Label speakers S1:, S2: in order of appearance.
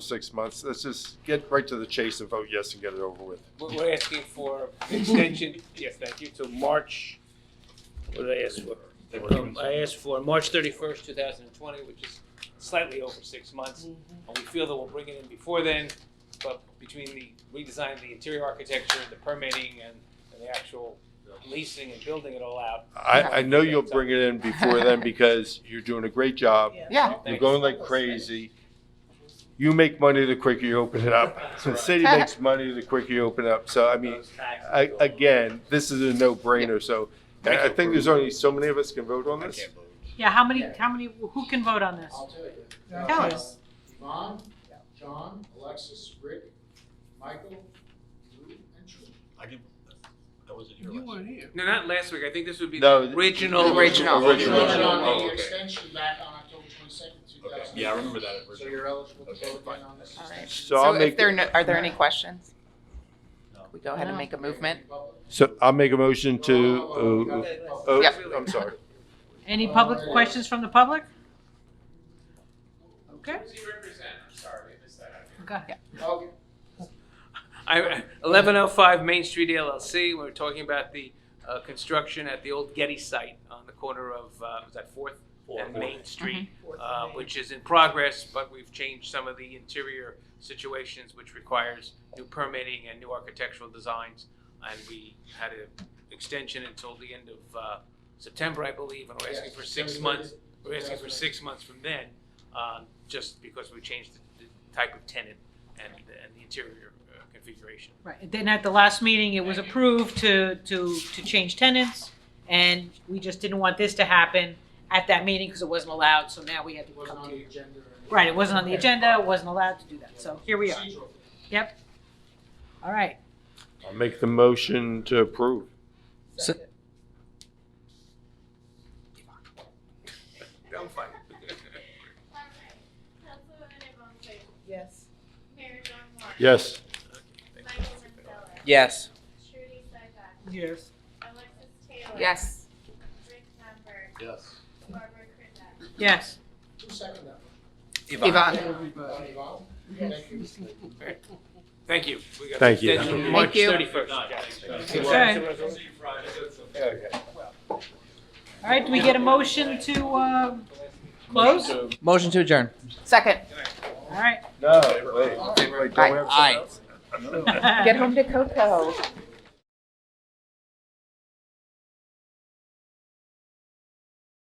S1: six months. Let's just get right to the chase and vote yes and get it over with.
S2: We're we're asking for extension, yes, thank you, to March, what did I ask for? Um, I asked for March thirty-first, two thousand and twenty, which is slightly over six months. And we feel that we'll bring it in before then, but between the redesign of the interior architecture, the permitting and and the actual leasing and building it all out.
S1: I, I know you'll bring it in before then because you're doing a great job.
S3: Yeah.
S1: You're
S2: Thanks.
S1: going like crazy. You make money the quicker you open it up. The city makes money the quicker you open it up. So I mean,
S2: Those taxes
S1: I,
S2: go up.
S1: again, this is a no-brainer. So I I think there's only so many of us can vote on
S4: I
S1: this.
S4: can't believe it.
S3: Yeah, how many, how many, who can vote on this?
S5: I'll tell you.
S3: Tell us.
S5: Yvonne, John, Alexis, Rick, Michael, Lou, and Julie.
S4: I can, I wasn't here last. week.
S2: No, not last week, I think this would be
S1: No,
S2: the
S1: th-
S2: original.
S3: Original.
S1: Original.
S5: Voted on
S4: Oh,
S5: the
S4: okay.
S5: extension back on October twenty-second, two
S4: Okay,
S5: thousand.
S4: yeah, I remember that.
S5: So you're eligible to
S4: Okay,
S5: vote
S4: fine.
S5: again on this.
S6: All right.
S1: So I'll
S6: if
S1: make-
S6: there are no- Are there any questions?
S4: No.
S6: We go ahead and make a movement?
S1: So I'll make a motion
S5: Well, well,
S1: to,
S5: well,
S1: oh,
S5: well,
S1: oh,
S6: Yep.
S1: I'm sorry.
S3: Any public
S5: Uh,
S3: questions from the public? Okay,
S2: Who does he represent? I'm sorry, I missed that.
S3: go ahead.
S5: Okay.
S2: I, eleven oh five Main Street LLC, we were talking about the, uh, construction at the old Getty site on the corner of, uh, was that Fourth and Main Street, uh,
S5: Mm-hmm.
S2: which is in progress, but we've changed some of the interior situations, which requires new permitting and new architectural designs. And we had an extension until the end of, uh, September, I believe, and we're asking for six months. We're asking for six months from then, um, just because we changed the, the type of tenant and, and the interior uh, configuration.
S3: Right, then at the last meeting, it was approved to, to, to change tenants, and we just didn't want this to happen at that meeting because it wasn't allowed, so now we had to
S5: It wasn't
S3: come
S5: on
S3: to
S5: the
S3: you.
S5: agenda. or anything.
S3: Right, it wasn't on the agenda, it wasn't allowed to do that, so here we are.
S5: Procedural.
S3: All right,
S1: I'll make the motion to approve.
S6: So-
S2: I'm fine.
S7: Councilwoman Yvonne Clayton.
S6: Yes.
S7: Mayor John Moore.
S1: Yes.
S7: Michael Mansella.
S6: Yes.
S7: Trudy Seibach.
S3: yes,
S7: Alexis Taylor.
S6: Yes.
S7: Rick Sandberg.
S4: Yes.
S7: Barbara Krittenbach.
S3: yes.
S5: Who seconded that?
S6: Yvonne.
S5: Yvonne, Yvonne?
S2: Thank
S5: Thank you.
S2: you. We got
S1: Thank you.
S2: extension
S6: Thank
S2: March
S6: you.
S2: 31st.
S3: Okay. All right, do we get a motion to, uh, close? All
S8: Motion to adjourn.
S6: Second.
S3: right.
S1: No, wait. Wait, don't we have
S8: Aye.
S1: something else?
S6: Get home to Coco.